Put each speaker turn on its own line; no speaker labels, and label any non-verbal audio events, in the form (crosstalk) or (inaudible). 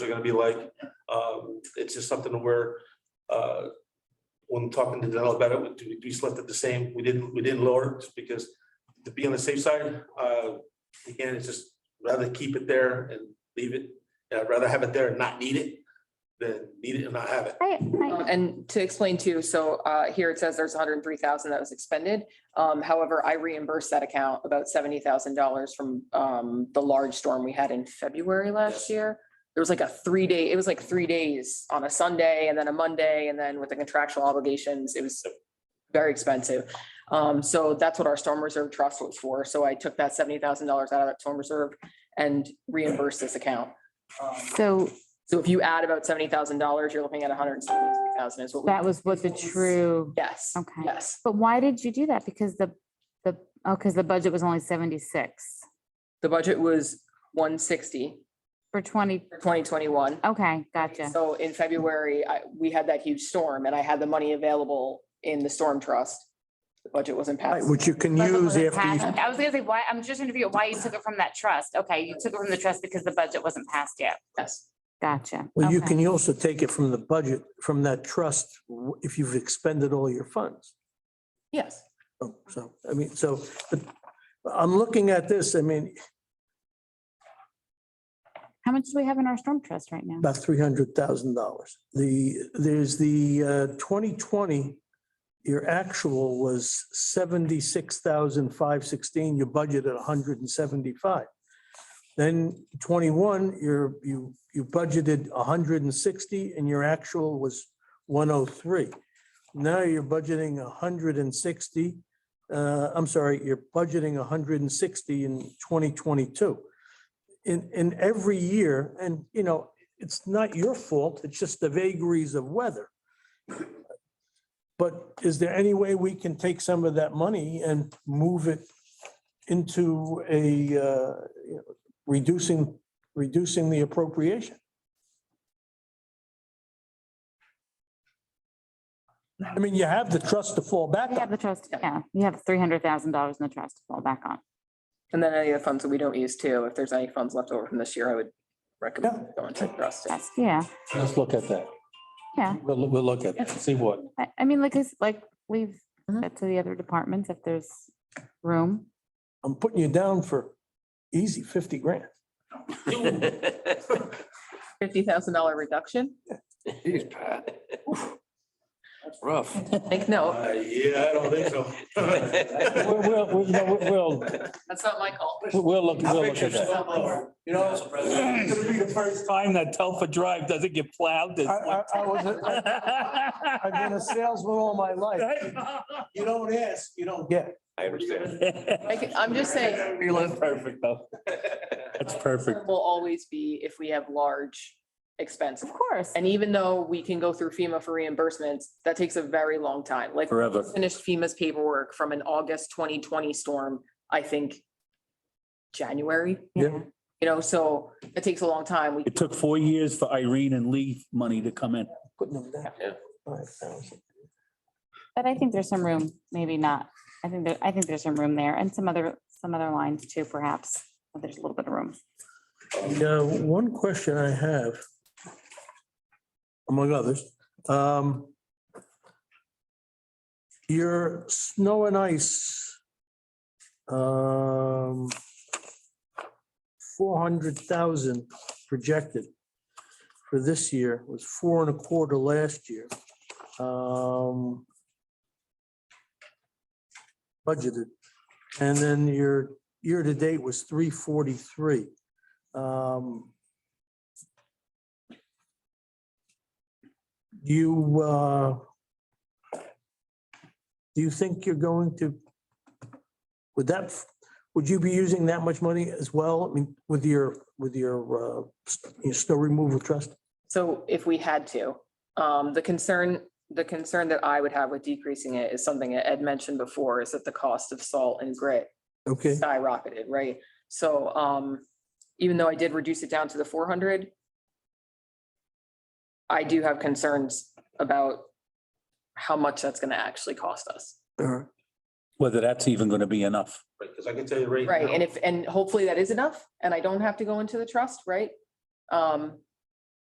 they're gonna be like. Um, It's just something where, uh, when talking to Danell about it, we- we just left it the same. We didn't, we didn't lower it just because to be on the safe side, uh, again, it's just rather keep it there and leave it. And I'd rather have it there and not need it than need it and not have it.
I, I,
Um, And to explain too, so uh, here it says there's hundred and three thousand that was expended. Um, However, I reimbursed that account about seventy thousand dollars from um, the large storm we had in February last year. There was like a three day, it was like three days on a Sunday and then a Monday, and then with the contractual obligations, it was very expensive. Um, So that's what our storm reserve trust was for. So I took that seventy thousand dollars out of that storm reserve and reimbursed this account. Um,
so
so if you add about seventy thousand dollars, you're looking at $173,000 is what. we-
that was what the true,
Yes.
Okay.
Yes.
but why did you do that? Because the, the, oh, because the budget was only seventy-six
The budget was one sixty
for twenty,
for twenty twenty-one.
okay, gotcha.
So in February, I, we had that huge storm and I had the money available in the storm trust. The budget wasn't
Right,
passed.
which you can
Budget
use
wasn't
after you,
passed. I was gonna say, why, I'm just trying to figure out why you took it from that trust. Okay, you took it from the trust because the budget wasn't passed yet.
Yes.
Gotcha.
well, you
Okay.
can also take it from the budget, from that trust, w- if you've expended all your funds.
Yes.
Oh, So, I mean, so, but I'm looking at this, I mean,
How much do we have in our storm trust right now?
about three hundred thousand dollars. The, there's the uh, twenty twenty, your actual was seventy-six thousand five sixteen, your budget at hundred and seventy-five. Then twenty-one, you're, you, you budgeted hundred and sixty and your actual was one oh three. Now you're budgeting hundred and sixty, uh, I'm sorry, you're budgeting hundred and sixty in twenty twenty-two. In, in every year, and you know, it's not your fault, it's just the vagaries of weather. But is there any way we can take some of that money and move it into a, uh, you know, reducing, reducing the appropriation? I mean, you have the trust to fall back
We have
on.
the trust, yeah, you have three hundred thousand dollars in the trust to fall back on.
And then any of the funds that we don't use too, if there's any funds left over from this year, I would recommend going to trust.
That's, yeah,
Let's look at that.
yeah.
We'll, we'll look at that, see what.
(laughs)
I, I mean, like, it's like we've,
Mhm.
said to the other departments, if there's room.
I'm putting you down for easy fifty grand.
Uh,
Fifty thousand dollar reduction?
Jeez, Pat. That's rough.
Make note.
Uh, Yeah, I don't think so. (laughs)
We'll, we'll, we'll, you know, we'll,
That's not my call.
we'll- we'll look, we'll look at that.
You know, it's gonna be the first time that Telfa Drive doesn't get plowed this
I, I, I was, I've been
winter.
a salesman all my life. You don't ask, you don't get.
I understand.
I'm just saying.
That's (laughs) perfect, though. That's perfect.
Will always be if we have large expenses.
Of course.
And even though we can go through FEMA for reimbursements, that takes a very long time. Like
Forever.
finished FEMA's paperwork from an August twenty twenty storm, I think January,
Yeah.
you know, so it takes a long time. We
It took four years for Irene and Lee money to come in.
Putting them down.
Yeah.
Five thousand.
But I think there's some room, maybe not. I think there, I think there's some room there and some other, some other lines too, perhaps. but There's a little bit of room.
Now, one question I have, among others, um, your snow and ice, um, four hundred thousand projected for this year was four and a quarter last year. Um, budgeted, and then your year-to-date was three forty-three. Um You, uh do you think you're going to, would that, would you be using that much money as well? I mean, with your, with your, uh s- your snow removal trust?
So if we had to, um, the concern, the concern that I would have with decreasing it is something that Ed mentioned before, is that the cost of salt and grit
Okay,
skyrocketed, right? So, um, even though I did reduce it down to the four hundred, I do have concerns about how much that's gonna actually cost us.
all right.
Whether that's even gonna be enough.
Because I can tell you right.
Right,
now-
and if, and hopefully that is enough, and I don't have to go into the trust, right? Um,